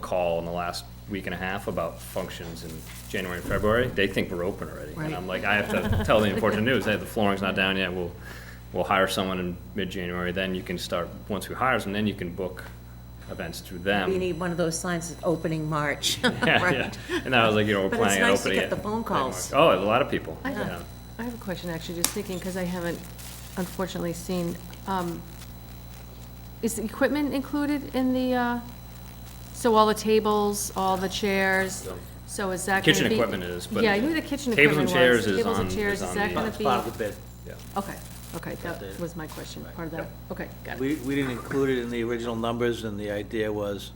call in the last week and a half about functions in January and February, they think we're open already. And I'm like, I have to tell the unfortunate news, hey, the flooring's not down yet, we'll, we'll hire someone in mid-January, then you can start, once we hire them, then you can book events through them. We need one of those signs that's opening March. Yeah, Right. yeah. And I was like, you know, we're But it's planning on nice to opening it. get the phone calls. Oh, a lot of people, I yeah. have, I have a question, actually, just thinking, because I haven't unfortunately seen, um, is the equipment included in the, uh, so all the tables, all the chairs, so is that gonna be? Kitchen equipment is, but Yeah, I knew the kitchen tables and equipment was. chairs is Tables and on- chairs, is on that the- gonna It's be? Part of the bid. Okay, okay, Updated. that was my question, part of that, okay, got it. We, we didn't include it in the original numbers, and the idea was,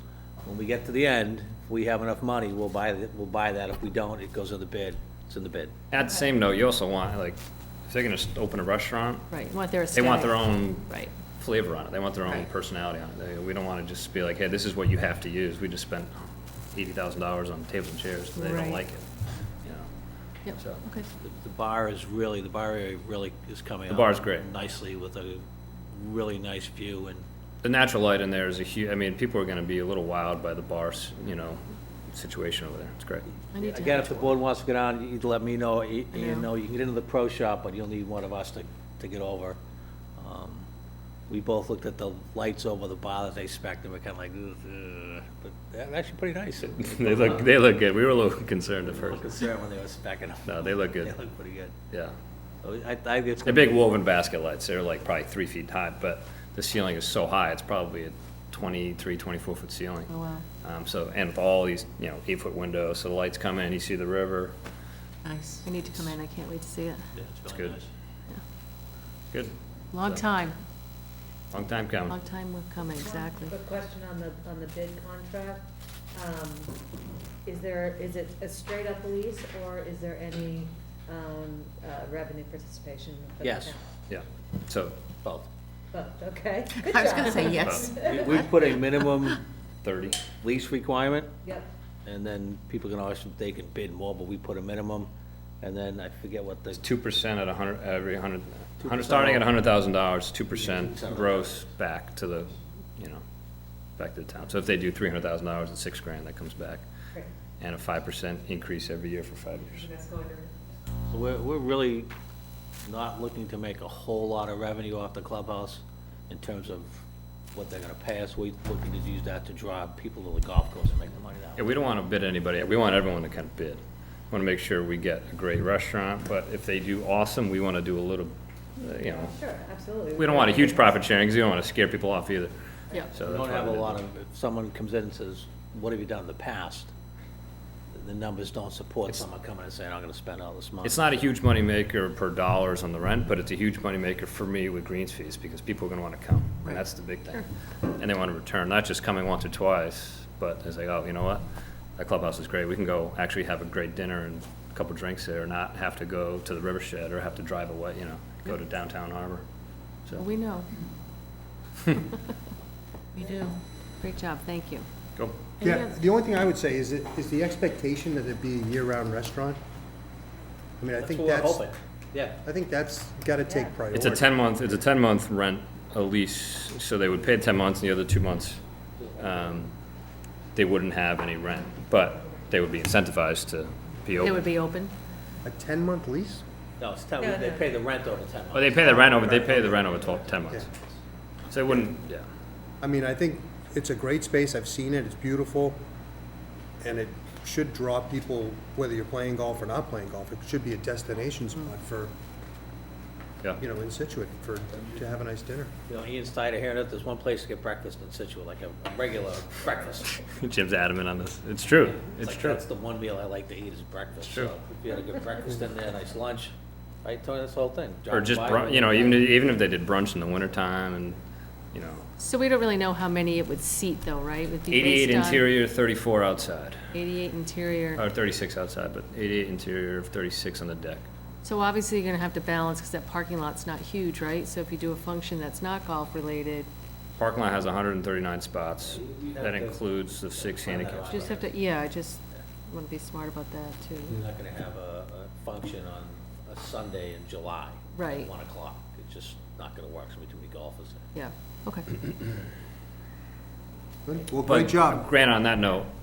when we get to the end, if we have enough money, we'll buy, th- we'll buy that. If we don't, it goes in the bid. It's in the bid. At the same note, you also want, like, if they're gonna s- open a restaurant, Right, you want their they want their aesthetic. own Right. flavor on it, they want their own Right. personality on it. They- We don't wanna just be like, hey, this is what you have to use, we just spent eighty thousand dollars on tables and chairs, and they don't Right. like it, you know? Yep, So- okay, The- The bar is really, the bar area really is coming The up. bar's great. Nicely with a really nice view and The natural light in there is a huge. I mean, people are gonna be a little wild by the bars, you know, situation over there, it's great. I need to. Again, if the board wants to get on, you'd let me know, you I you know. know, you can get into the pro shop, but you'll need one of us to, to get over. Um, We both looked at the lights over the bar that they spec, and we're kinda like, "Ugh," but they're actually pretty nice. They look, they look good, we were a little concerned at Little first, concerned when they were specking them. No, they look good. They look pretty good. yeah. So I, I, it's. They're big woven basket lights, they're like probably three feet high, but the ceiling is so high, it's probably a 23, 24 foot ceiling. Oh, wow. Um, so, and with all these, you know, eight foot windows, so the lights come in, you see the river, Nice. I need to come in, I can't wait to see it, Yeah, It's really good. nice. yeah. good, Long So- time, long time coming. long time we're coming, exactly. Quick question on the, on the bid contract. Um, Is there, is it a straight-up lease, or is there any um, uh, revenue participation? for the Yes. town? Yeah, so Both. Both, okay. Good I was gonna job. say yes. We we put a minimum 30, lease requirement, Yep, and then people can always, they can bid more, but we put a minimum, and then I forget what the. 2% at 100, every 100, 100 2% starting at off. $100,000, 2% $2,000. gross back to the, you know, back to the town. So if they do $300,000 and six grand, that comes back, great. and a 5% increase every year for five years. That's going to. We're, we're really not looking to make a whole lot of revenue off the clubhouse in terms of what they're gonna pay us. We're looking to use that to draw people to the golf course and make the money that Yeah, way. we don't want to bid anybody, we want everyone to kind of bid. Want to make sure we get a great restaurant, but if they do awesome, we want to do a little, uh, you know, Sure, absolutely. we don't want a huge profit sharing, because we don't want to scare people off either. Yeah. So We that's don't have a why we- lot of, if someone comes in and says, what have you done in the past? The numbers don't support someone coming and saying, I'm gonna spend all this money. It's not a huge moneymaker per dollars on the rent, but it's a huge moneymaker for me with greens fees, because people are going to want to come, and that's the big thing. And they want to return, not just coming once or twice, but it's like, oh, you know what? That clubhouse is great, we can go actually have a great dinner and a couple drinks there, not have to go to the river shed or have to drive away, you know, go to downtown harbor, so. We know. We do. Great job, thank you. Go. Any Yeah, other- the only thing I would say is, it is the expectation that it be a year-round restaurant? I mean, I think that's, Yeah. I think that's got to take priority. It's a ten-month, it's a ten-month rent, a lease, so they would pay ten months, and the other two months, um, they wouldn't have any rent, but they would be incentivized to be It would open. be open? A 10-month lease? No, it's ten, they pay the rent over ten Well, they pay the rent over, they pay the rent over twelve, ten months. So it wouldn't, yeah, I mean, I think it's a great space, I've seen it, it's beautiful, and it should draw people, whether you're playing golf or not playing golf, it should be a destination spot for, yeah. you know, in Situate, for, to have a nice dinner. You know, Ian Steiner here, and there's one place to get breakfast in Situate, like a a regular breakfast. Jim's adamant on this. It's true, it's like, true. That's the one meal I like to eat is breakfast. true. So if you had a good breakfast in there, nice lunch, right, Tony, that's the whole thing. Or Drive just, by, bru- you know, even, even if they did brunch in the wintertime and, you know, So we don't really know how many it would seat though, right? Would be eighty-eight based on- interior, Uh. thirty-four outside, Eighty-eight interior. or thirty-six outside, but eighty-eight interior, thirty-six on the deck. So obviously you're gonna have to balance, because that parking lot's not huge, right? So if you do a function that's not golf-related, Parking lot has hundred and thirty-nine spots. That includes the six handicaps. you just have to, yeah, I just wanna be smart about that too. You're not gonna have a, a function on a Sunday in July. at Right. One o'clock, it's just not gonna work, so we too many golfers there. Yeah, okay. Well, But great job. Grant, on that note,